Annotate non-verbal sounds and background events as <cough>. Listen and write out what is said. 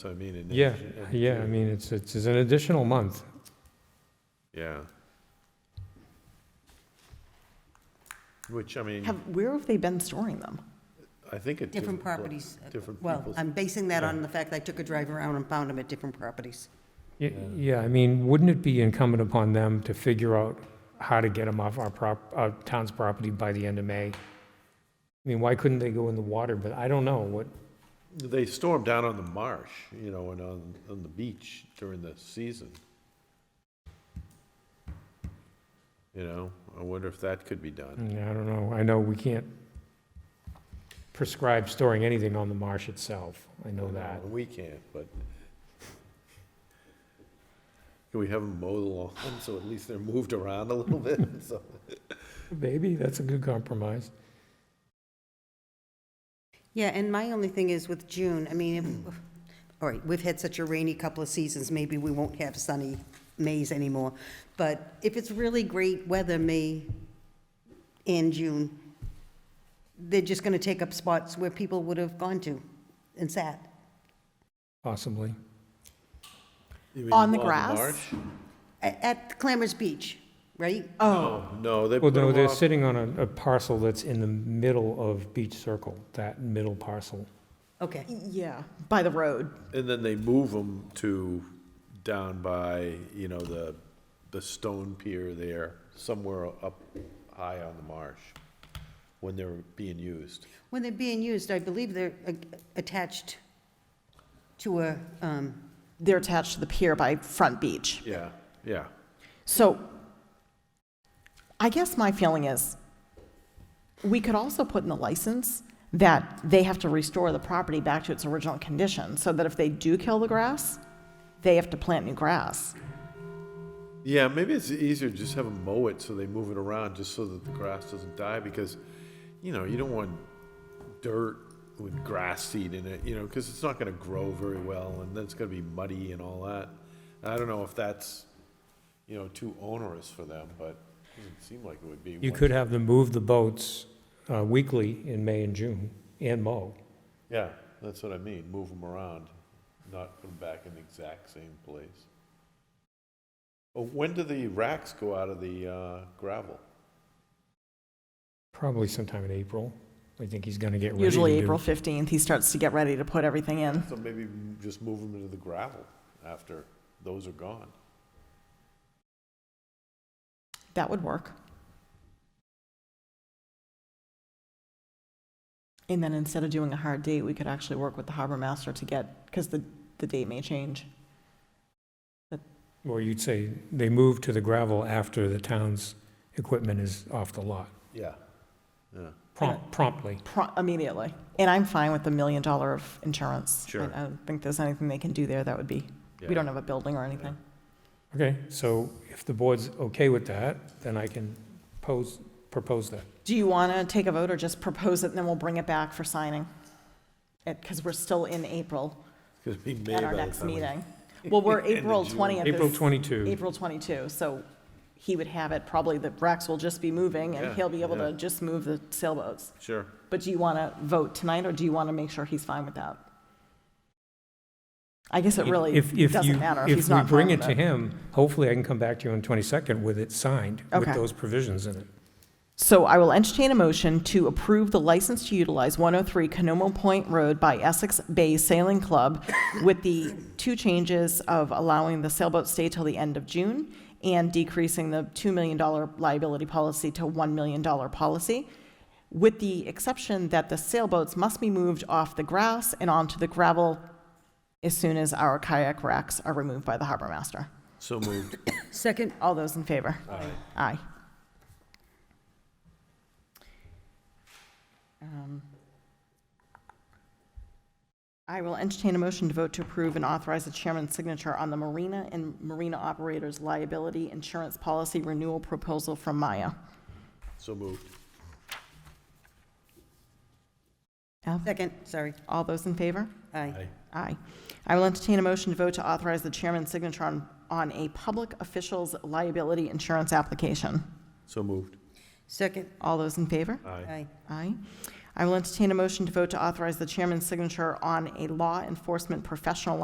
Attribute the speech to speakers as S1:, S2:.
S1: So I mean, it.
S2: Yeah,
S1: it-
S2: yeah, I mean, it's, it's it's an additional month.
S1: Yeah. Which, I mean,
S3: Have, where have they been storing them?
S1: I think it.
S4: Different properties.
S3: uh,
S4: uh,
S1: Different
S4: Well,
S1: people's.
S4: I'm basing that on the fact that I took a drive around and found them at different properties.
S2: Y- Yeah, I mean, wouldn't it be incumbent upon them to figure out how to get them off our prop, our town's property by the end of May? I mean, why couldn't they go in the water, but I don't know what,
S1: They storm down on the marsh, you know, and on, on the beach during the season. You know, I wonder if that could be done.
S2: mm, I don't know, I know we can't prescribe storing anything on the marsh itself, I know that.
S1: We can't, but. Can we have them mow the lawn so at least they're moved around a little bit? <laughs> So,
S2: Maybe, that's a good compromise.
S4: Yeah, and my only thing is with June, I mean, if- <clears throat> all right, we've had such a rainy couple of seasons, maybe we won't have sunny Mays anymore. But if it's really great weather, May and June, they're just going to take up spots where people would have gone to and sat.
S2: Possibly.
S1: You mean
S3: On the
S1: lawn
S3: grass?
S1: marsh?
S4: A- At Clammer's Beach, right?
S3: Oh,
S1: No, they
S2: Well,
S1: put
S2: no,
S1: them
S2: they're
S1: off.
S2: sitting on a, a parcel that's in the middle of Beach Circle, that middle parcel.
S4: Okay.
S3: yeah, by the road.
S1: And then they move them to down by, you know, the, the stone pier there, somewhere up high on the marsh, when they're being used.
S4: When they're being used, I believe they're uh, attached to a, um,
S3: They're attached to the pier by Front Beach.
S1: Yeah, yeah.
S3: So I guess my feeling is we could also put in the license that they have to restore the property back to its original condition so that if they do kill the grass, they have to plant new grass.
S1: Yeah, maybe it's easier to just have them mow it so they move it around, just so that the grass doesn't die, because, you know, you don't want dirt with grass seed in it, you know, because it's not gonna grow very well, and then it's gonna be muddy and all that. I don't know if that's, you know, too onerous for them, but it doesn't seem like it would be.
S2: You
S1: once-
S2: could have them move the boats uh, weekly in May and June and mow.
S1: Yeah, that's what I mean, move them around, not put them back in the exact same place. Oh, when do the racks go out of the uh, gravel?
S2: Probably sometime in April. I think he's going to get ready to
S3: Usually
S2: do-
S3: April 15th, he starts to get ready to put everything in.
S1: So maybe m- just move them into the gravel after those are gone.
S3: That would work. And then instead of doing a hard date, we could actually work with the harbor master to get, because the, the date may change.
S2: Or you'd say they move to the gravel after the town's equipment is off the lot,
S1: Yeah. Yeah.
S2: Prompt- promptly.
S3: Pro- immediately. And I'm fine with the million dollar of insurance.
S1: Sure.
S3: I, I don't think there's anything they can do there that would be, we don't have a building or anything.
S2: Okay, so if the board's okay with that, then I can pose, propose that.
S3: Do you want to take a vote or just propose it and then we'll bring it back for signing? Because we're still in April
S1: It's gonna be May
S3: at our
S1: by the
S3: next
S1: time we- <laughs>
S3: meeting. Well, we're
S1: End of
S3: April
S1: June.
S3: 20th.
S2: April
S3: is-
S2: 22.
S3: April 22, so he would have it, probably the Rex will just be moving,
S1: Yeah,
S3: and he'll be able
S1: yeah.
S3: to just move the sailboats.
S1: Sure.
S3: But do you want to vote tonight, or do you want to make sure he's fine with that? I guess it really
S2: If- if you-
S3: doesn't matter if he's not
S2: If we
S3: fine
S2: bring it
S3: with
S2: to
S3: it.
S2: him, hopefully I can come back to you on 22nd with it signed, with
S3: Okay.
S2: those provisions in it.
S3: So I will entertain a motion to approve the license to utilize 103 Canomo Point Road by Essex Bay Sailing Club with the two changes of allowing the sailboat stay till the end of June and decreasing the $2 million liability policy to $1 million policy, with the exception that the sailboats must be moved off the grass and onto the gravel as soon as our kayak racks are removed by the harbor master.
S1: So moved.
S4: Second,
S3: All those in favor?
S1: Aye.
S3: Aye. Um, I will entertain a motion to vote to approve and authorize the chairman's signature on the Marina and Marina Operators Liability Insurance Policy Renewal Proposal from Maya.
S1: So moved.
S3: F.
S4: second, sorry.
S3: All those in favor?
S4: Aye.
S1: Aye.
S3: Aye. I will entertain a motion to vote to authorize the chairman's signature on, on a public official's liability insurance application.
S1: So moved.
S4: Second,
S3: All those in favor?
S1: Aye.
S4: aye.
S3: Aye. I will entertain a motion to vote to authorize the chairman's signature on a law enforcement professional